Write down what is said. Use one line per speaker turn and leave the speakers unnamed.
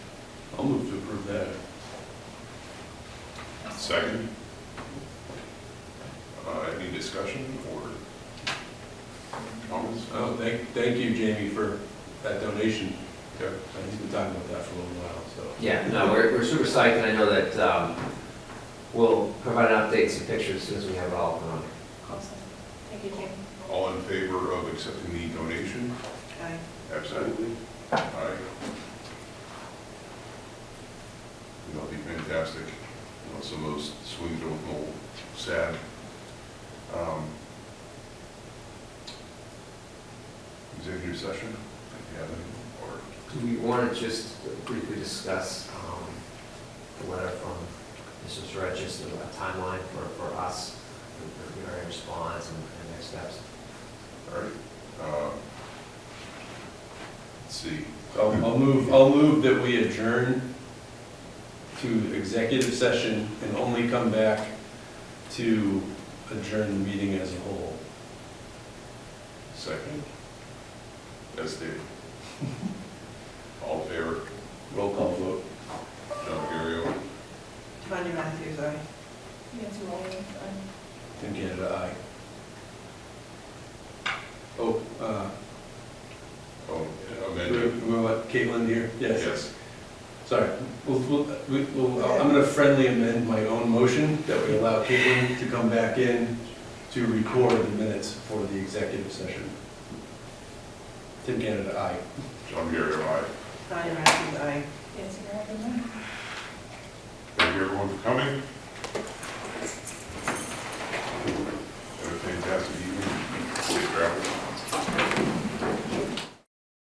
Second. Uh, Any discussion or comments?
Oh, thank, thank you, Jamie, for that donation.
Yeah.
Uh, He's been talking about that for a little while, so.
Yeah, no, we're, we're super psyched, and I know that, um, we'll provide an update, some pictures as soon as we have it all up and running.
Awesome. Thank you, Jim.
All in favor of accepting the donation?
Aye.
Absolutely. Aye. That'll be fantastic. You know, Some of those swings are a little sad. Um, Executive session, if you have any, or
Do we want to just briefly discuss, um, the letter from Mr. Surratt, just a a timeline for, for us, for- for our response and, and next steps?
All right, uh, let's see,
I'll, I'll move, I'll move that we adjourn to executive session and only come back to adjourn the meeting as a whole.
second? That's Dave. All in favor,
Roll call vote.
John Gary,
Tanya Matthews, aye.
Nancy Wally, aye.
Tim Canada, aye. Oh, uh,
oh,
we're,
amended,
we're what, Caitlin here?
yes,
Sorry, we'll, we'll, we- we'll- I'm gonna friendly amend my own motion that we allow Caitlin to come back in to record the minutes for the executive session. Tim Canada, aye.
John Gary, aye.
Tanya Matthews, aye.